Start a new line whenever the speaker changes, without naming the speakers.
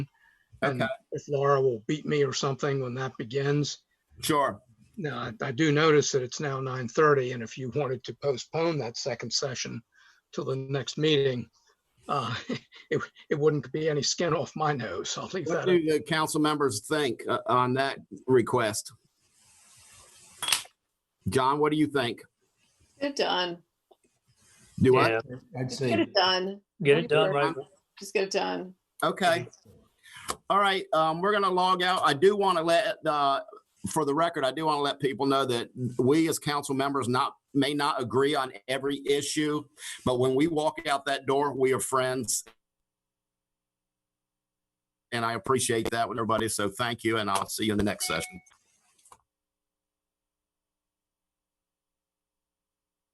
And
Okay.
If Laura will beat me or something when that begins.
Sure.
Now, I- I do notice that it's now 9:30, and if you wanted to postpone that second session till the next meeting, uh, it it wouldn't be any skin off my nose. I'll leave that.
What do the council members think uh, on that request? John, what do you think?
Get it done.
Do I?
Yeah,
I'd
Just get
say,
it done.
get it done right.
Just get it done.
Okay. All right, um, we're gonna log out. I do want to let, uh, for the record, I do want to let people know that we as council members not, may not agree on every issue, but when we walk out that door, we are friends. And I appreciate that with everybody, so thank you, and I'll see you in the next session.